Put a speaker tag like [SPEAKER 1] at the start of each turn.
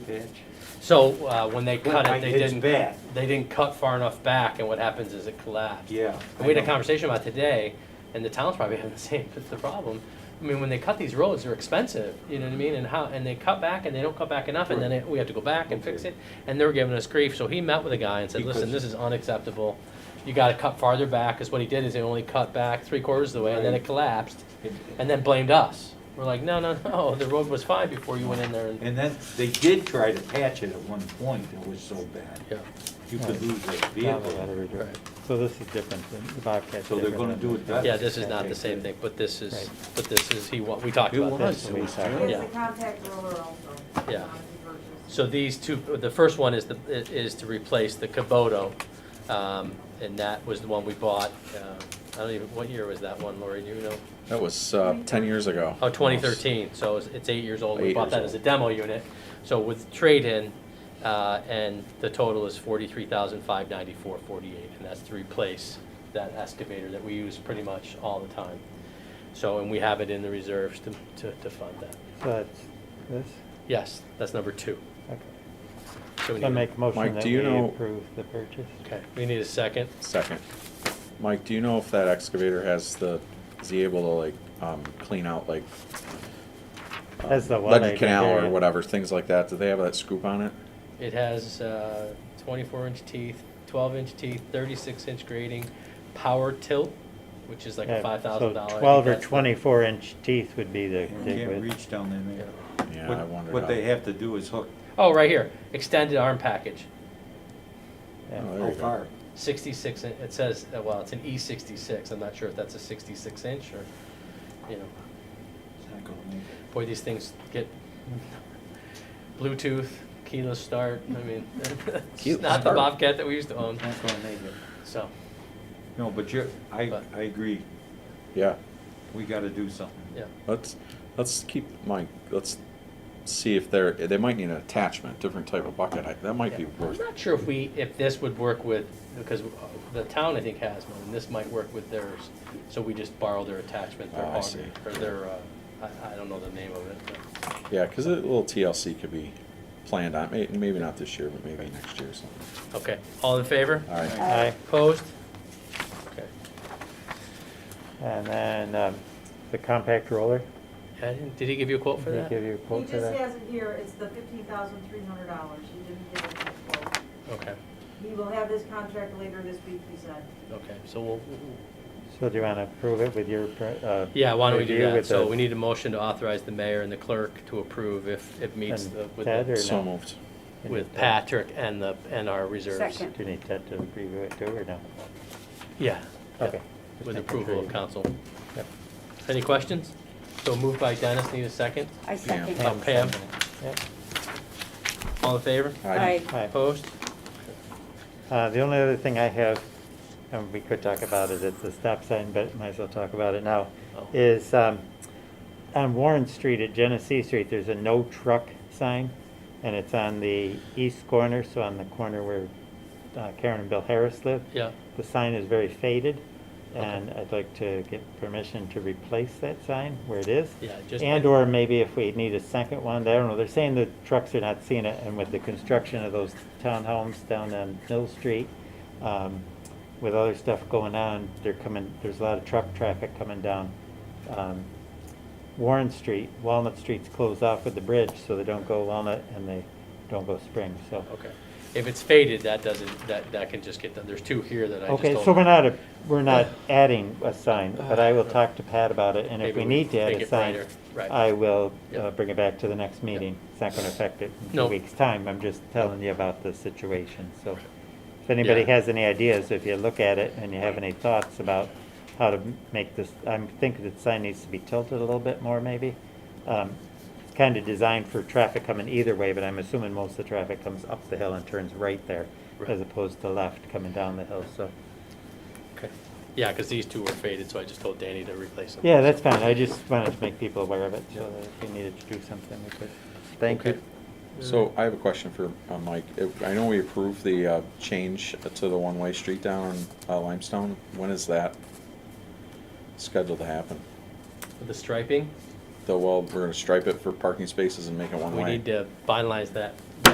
[SPEAKER 1] Okay.
[SPEAKER 2] So uh, when they cut
[SPEAKER 1] My
[SPEAKER 2] it, they
[SPEAKER 1] head's
[SPEAKER 2] didn't,
[SPEAKER 1] bad.
[SPEAKER 2] they didn't cut far enough back, and what happens is it collapsed.
[SPEAKER 1] Yeah.
[SPEAKER 2] And we had
[SPEAKER 1] I
[SPEAKER 2] a
[SPEAKER 1] know.
[SPEAKER 2] conversation about today, and the town's probably having the same, that's the problem. I mean, when they cut these roads, they're expensive, you know what I mean, and how, and they cut back and they don't cut back enough, and then it- we have to go back and fix
[SPEAKER 1] Okay.
[SPEAKER 2] it, and they're giving us grief, so he met with a guy and said, listen,
[SPEAKER 1] Because-
[SPEAKER 2] this is unacceptable. You gotta cut farther back, because what he did is he only cut back three quarters of the way, and then
[SPEAKER 1] Right.
[SPEAKER 2] it collapsed,
[SPEAKER 1] It-
[SPEAKER 2] and then blamed us. We're like, no, no, no, the road was fine before you went in there and,
[SPEAKER 1] And then, they did try to patch it at one point, it was so bad.
[SPEAKER 2] yeah.
[SPEAKER 1] You could lose a vehicle.
[SPEAKER 2] Right.
[SPEAKER 3] So this is different, than the Bobcat's
[SPEAKER 1] So they're
[SPEAKER 3] different
[SPEAKER 1] gonna
[SPEAKER 3] than
[SPEAKER 1] do it
[SPEAKER 3] the-
[SPEAKER 1] better.
[SPEAKER 2] Yeah, this is not the same thing, but this is, but this is, he, wa- we talked
[SPEAKER 1] It
[SPEAKER 2] about
[SPEAKER 1] was,
[SPEAKER 2] this.
[SPEAKER 1] it was
[SPEAKER 3] Yeah.
[SPEAKER 4] It's
[SPEAKER 1] terrible.
[SPEAKER 4] a contact roller also.
[SPEAKER 2] Yeah.
[SPEAKER 4] um, purchase.
[SPEAKER 2] So these two, the first one is the, is to replace the Kubota, um, and that was the one we bought, uh, I don't even, what year was that one, Lori, do you know?
[SPEAKER 5] That was uh, 10 years ago.
[SPEAKER 2] Oh, 2013, so it's- it's eight years old, we
[SPEAKER 5] Eight
[SPEAKER 2] bought
[SPEAKER 5] years
[SPEAKER 2] that
[SPEAKER 5] old.
[SPEAKER 2] as a demo unit, so with trade-in, uh, and the total is 43,594.48, and that's to replace that excavator that we use pretty much all the time. So, and we have it in the reserves to, to, to fund that.
[SPEAKER 3] So that's this,
[SPEAKER 2] Yes, that's number two.
[SPEAKER 3] okay.
[SPEAKER 2] So we
[SPEAKER 3] So I
[SPEAKER 2] need-
[SPEAKER 3] make a
[SPEAKER 5] Mike,
[SPEAKER 3] motion that
[SPEAKER 5] do you
[SPEAKER 3] we
[SPEAKER 5] know-
[SPEAKER 3] approve the purchase.
[SPEAKER 2] Okay, we need a second.
[SPEAKER 5] Second. Mike, do you know if that excavator has the, is he able to like um, clean out like
[SPEAKER 3] That's the one.
[SPEAKER 5] Leaden Uh, Canal or whatever, things like that? Do they have that scoop on it?
[SPEAKER 2] It has uh, 24-inch teeth, 12-inch teeth, 36-inch grading, power tilt, which is like a $5,000. I think
[SPEAKER 3] Twelve or
[SPEAKER 2] that's the-
[SPEAKER 3] twenty-four inch teeth would be the,
[SPEAKER 1] You
[SPEAKER 3] dig
[SPEAKER 1] can't
[SPEAKER 3] width.
[SPEAKER 1] reach down in there.
[SPEAKER 5] Yeah,
[SPEAKER 1] What-
[SPEAKER 5] I wondered.
[SPEAKER 1] What
[SPEAKER 5] how-
[SPEAKER 1] they have to do is hook
[SPEAKER 2] Oh, right here, extended arm package,
[SPEAKER 3] Yeah.
[SPEAKER 5] Oh, there
[SPEAKER 1] how
[SPEAKER 5] you go.
[SPEAKER 1] far?
[SPEAKER 2] 66, in- it says, uh, well, it's an E66, I'm not sure if that's a 66-inch or, you know,
[SPEAKER 1] It's not gonna make it.
[SPEAKER 2] boy, these things get Bluetooth, keyless start, I mean, it's
[SPEAKER 5] Keyless
[SPEAKER 2] not the
[SPEAKER 5] start.
[SPEAKER 2] Bobcat that we used to own,
[SPEAKER 1] It's not gonna make it.
[SPEAKER 2] so.
[SPEAKER 1] No, but you're, I,
[SPEAKER 2] But-
[SPEAKER 1] I agree,
[SPEAKER 5] Yeah,
[SPEAKER 1] we gotta do something.
[SPEAKER 2] Yeah,
[SPEAKER 5] let's, let's keep, Mike, let's see if they're, they might need an attachment, different type of bucket. I- That might be
[SPEAKER 2] Yeah. I'm
[SPEAKER 5] worth,
[SPEAKER 2] not sure if we, if this would work with, because uh, the town, I think, has one, and this might work with theirs. So we just borrow their attachment, their
[SPEAKER 5] Oh, I
[SPEAKER 2] hog,
[SPEAKER 5] see.
[SPEAKER 2] or their, uh, I, I don't know the name of it, but,
[SPEAKER 5] yeah, because a little TLC could be planned on, may- maybe not this year, but maybe next year or something.
[SPEAKER 2] okay, all in favor?
[SPEAKER 5] All right.
[SPEAKER 3] Aye.
[SPEAKER 2] Opposed? Okay,
[SPEAKER 5] Oh.
[SPEAKER 3] And then, um, the compact roller,
[SPEAKER 2] I didn't- did he give you a quote for
[SPEAKER 3] did
[SPEAKER 2] that?
[SPEAKER 3] he give you a
[SPEAKER 4] He
[SPEAKER 3] quote for
[SPEAKER 4] just
[SPEAKER 3] that?
[SPEAKER 4] has it here, it's the fifteen thousand three hundred dollars, he didn't give us a quote.
[SPEAKER 2] Okay,
[SPEAKER 4] He will have his contract later this week, he said.
[SPEAKER 2] okay, so we'll,
[SPEAKER 3] So do you wanna approve it with your, pr- uh?
[SPEAKER 2] yeah, why don't we do
[SPEAKER 3] review
[SPEAKER 2] that?
[SPEAKER 3] with
[SPEAKER 2] So
[SPEAKER 3] the-
[SPEAKER 2] we need a motion to authorize the mayor and the clerk to approve if it meets
[SPEAKER 3] And
[SPEAKER 2] the, with,
[SPEAKER 3] Ted
[SPEAKER 2] the-
[SPEAKER 3] or-
[SPEAKER 5] So
[SPEAKER 3] no.
[SPEAKER 5] moved.
[SPEAKER 3] you need
[SPEAKER 2] with
[SPEAKER 3] that.
[SPEAKER 2] Patrick and the, and our reserves.
[SPEAKER 6] Second.
[SPEAKER 3] Do you need Ted to review it too, or no?
[SPEAKER 2] Yeah. yeah.
[SPEAKER 3] Okay. Just
[SPEAKER 2] With
[SPEAKER 3] making
[SPEAKER 2] approval
[SPEAKER 3] sure
[SPEAKER 2] of
[SPEAKER 3] you-
[SPEAKER 2] council.
[SPEAKER 3] Yep.
[SPEAKER 2] Any questions? So moved by Dennis, need a second?
[SPEAKER 6] I second.
[SPEAKER 2] Uh, Pam,
[SPEAKER 3] Yep.
[SPEAKER 2] all in favor?
[SPEAKER 6] Aye.
[SPEAKER 3] Aye.
[SPEAKER 2] Opposed?
[SPEAKER 3] Uh, The only other thing I have, and we could talk about it at the stop sign, but might as well talk about it now,
[SPEAKER 2] Oh.
[SPEAKER 3] is um, on Warren Street at Genesee Street, there's a no truck sign, and it's on the east corner, so on the corner where uh, Karen and Bill Harris live.
[SPEAKER 2] Yeah.
[SPEAKER 3] The sign is very faded,
[SPEAKER 2] Okay.
[SPEAKER 3] and I'd like to get permission to replace that sign where it is.
[SPEAKER 2] Yeah, just-
[SPEAKER 3] And/or maybe if we need a second one, I don't know, they're saying the trucks are not seeing it, and with the construction of those townhomes down on Mill Street, um, with other stuff going on, they're coming, there's a lot of truck traffic coming down, um, Warren Street, Walnut Street's closed off with the bridge, so they don't go Walnut and they don't go Spring, so.
[SPEAKER 2] Okay. If it's faded, that doesn't, that, that can just get done. There's two here that I just told.
[SPEAKER 3] Okay, so we're not, a- we're not adding a sign, but I will talk to Pat about it, and if
[SPEAKER 2] Maybe
[SPEAKER 3] we
[SPEAKER 2] we
[SPEAKER 3] need to add
[SPEAKER 2] make
[SPEAKER 3] a
[SPEAKER 2] it
[SPEAKER 3] sign,
[SPEAKER 2] brighter, right.
[SPEAKER 3] I will
[SPEAKER 2] Yeah.
[SPEAKER 3] uh, bring it back to the next meeting. It's not gonna affect it in
[SPEAKER 2] No.
[SPEAKER 3] two weeks' time, I'm just telling you about the situation, so. If
[SPEAKER 2] Yeah.
[SPEAKER 3] anybody has any ideas, if you look at it and you have any thoughts about how to m- make this, I'm thinking the sign needs to be tilted a little bit more, maybe. Um, It's kind of designed for traffic coming either way, but I'm assuming most of the traffic comes up the hill and turns right there,
[SPEAKER 2] Right.
[SPEAKER 3] as opposed to left coming down the hill, so.
[SPEAKER 2] Okay. Yeah, because these two were faded, so I just told Danny to replace them.
[SPEAKER 3] Yeah, that's fine, I just wanted to make people aware of it, so that if we needed to do something, we could. Thank
[SPEAKER 2] Okay.
[SPEAKER 3] you.
[SPEAKER 5] So I have a question for uh, Mike. If- I know we approved the uh, change to the one-way street down uh, Limestone. When is that scheduled to happen?
[SPEAKER 2] The striping,
[SPEAKER 5] the, well, we're gonna stripe it for parking spaces and make it one way.
[SPEAKER 2] We need to finalize that